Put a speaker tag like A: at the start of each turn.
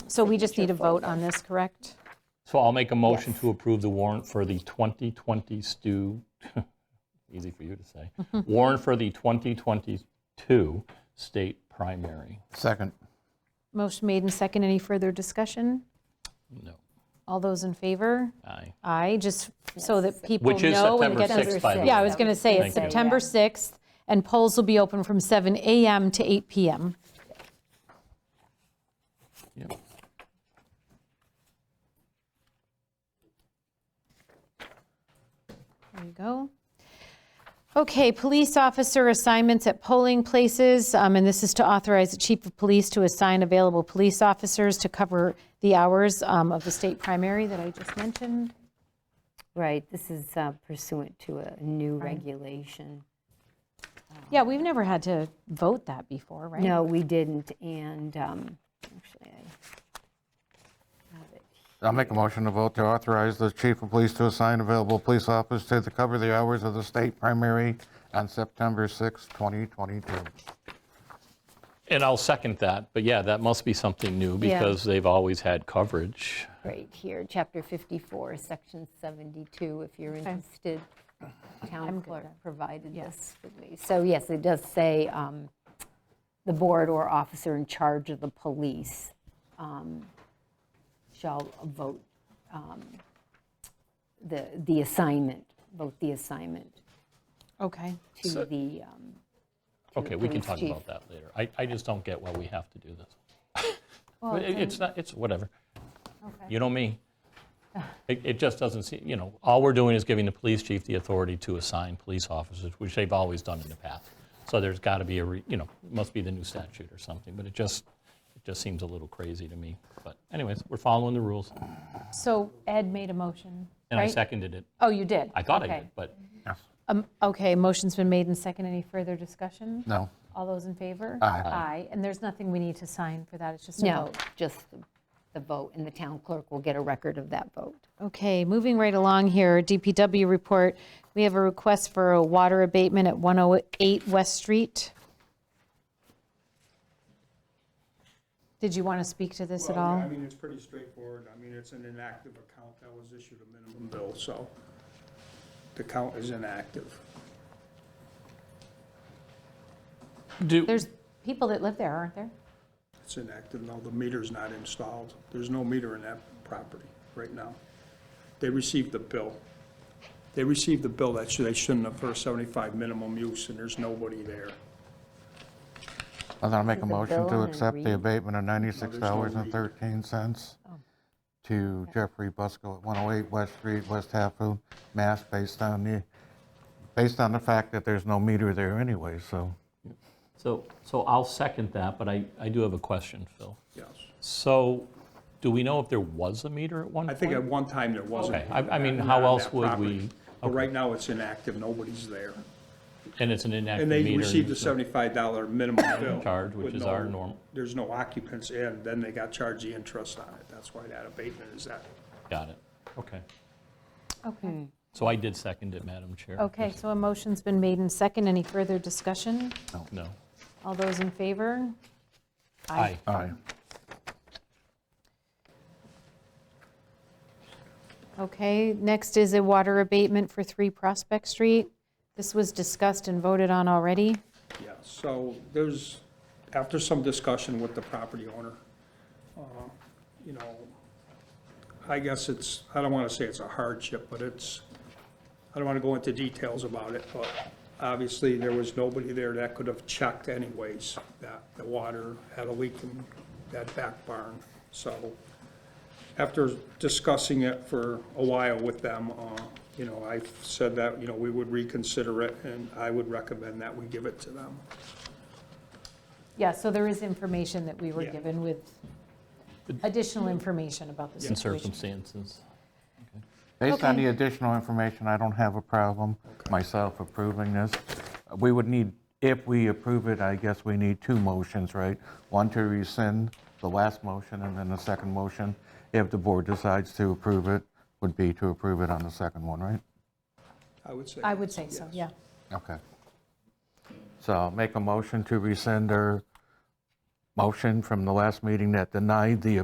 A: So we just need a vote on this, correct?
B: So I'll make a motion to approve the warrant for the 2020 stu, easy for you to say, warrant for the 2022 state primary.
C: Second.
A: Motion made and second. Any further discussion?
B: No,
A: All those in favor?
B: aye.
A: Aye, just so that people
B: Which is
A: know when it
B: September
A: gets.
D: September
B: 6th, by the way.
D: sixth.
A: Yeah, I was going to say, it's
B: Thank you.
A: September 6th, and polls will be open from 7 AM to 8 PM.
B: Yep.
A: There you go. Okay, police officer assignments at polling places, um, and this is to authorize the chief of police to assign available police officers to cover the hours um, of the state primary that I just mentioned.
D: Right, this is uh, pursuant to a new regulation.
A: Yeah, we've never had to vote that before, right?
D: No, we didn't, and um, actually, I have it.
C: I'll make a motion to vote to authorize the chief of police to assign available police officers to the- cover the hours of the state primary on September 6, 2022.
B: And I'll second that, but yeah, that must be something new
D: Yeah.
B: because they've always had coverage.
D: right here, Chapter 54, Section 72, if you're interested. Town clerk provided this with me. So yes, it does say um, the board or officer in charge of the police um, shall vote um, the, the assignment, vote the assignment
A: Okay.
D: to the, um,
B: Okay, we can
D: police
B: talk
D: chief.
B: about that later. I, I just don't get why we have to do this. It- It's not, it's whatever. You know me. It, it just doesn't seem, you know, all we're doing is giving the police chief the authority to assign police officers, which they've always done in the past. So there's got to be a, re- you know, must be the new statute or something, but it just, it just seems a little crazy to me. But anyways, we're following the rules,
A: So Ed made a motion,
B: and I
A: right?
B: seconded it.
A: Oh, you did?
B: I thought I
A: Okay.
B: did, but
A: Um, Okay, motion's been made and second. Any further discussion?
C: No.
A: All those in favor?
C: Aye.
A: Aye, and there's nothing we need to sign for that, it's just a
D: no,
A: vote.
D: just the- the vote, and the town clerk will get a record of that vote.
A: Okay, moving right along here, DPW report. We have a request for a water abatement at 108 West Street. Did you want to speak to this at
E: Well, yeah,
A: all?
E: I mean, it's pretty straightforward. I mean, it's an inactive account that was issued a minimum bill, so the account is inactive.
B: do,
A: There's people that live there, aren't there?
E: It's inactive now. The meter's not installed. There's no meter in that property right now. They received the bill. They received the bill that should- they shouldn't have for 75 minimum use, and there's nobody there.
C: And then I'll make a
D: Is the
C: motion
D: bill
C: to
D: and
C: accept the
D: read? Oh.
C: abatement of
E: No,
C: $96.13 to Jeffrey Busco at 108 West Street, West Hatfield, Mass., based on the, based on the fact that there's no meter there anyway, so.
B: so, so I'll second that, but I, I do have a question, Phil.
E: Yes.
B: So, do we know if there was a meter at one
E: I
B: point?
E: think at one time there was. a
B: Okay,
E: meter,
B: I- I mean,
E: not
B: how
E: on
B: else
E: that
B: would
E: property.
B: we-
E: But right now, it's inactive. Nobody's there.
B: And it's an inactive
E: And
B: meter.
E: they received a
B: there's no-
E: seventy-five dollar minimum bill.
B: Charge, which
E: with
B: is our
E: no-
B: norm.
E: There's no occupants in, then they got charged the interest on it. That's why that abatement is that.
B: Got it, okay.
A: Okay.
B: So I did second it, Madam Chair.
A: Okay, so a motion's been made and second. Any further discussion?
B: No.
A: All those in favor?
B: Aye.
C: Aye.
A: Okay, next is a water abatement for 3 Prospect Street. This was discussed and voted on already.
E: Yeah, so there's, after some discussion with the property owner, uh, you know, I guess it's, I don't want to say it's a hardship, but it's, I don't want to go into details about it, but obviously there was nobody there that could have checked anyways, that the water had a leak in that back barn. So after discussing it for a while with them, uh, you know, I said that, you know, we would reconsider it, and I would recommend that we give it to them.
A: Yeah, so there is information that we were
E: Yeah.
A: given with additional information about the
B: In
A: situation.
B: circumstances.
C: Based on
A: Okay.
C: the additional information, I don't have a problem myself approving this. We would need, if we approve it, I guess we need two motions, right? One to rescind the last motion, and then the second motion, if the board decides to approve it, would be to approve it on the second one, right?
E: I would say.
A: I would say so, yeah.
C: Okay. So I'll make a motion to rescind our motion from the last meeting that denied the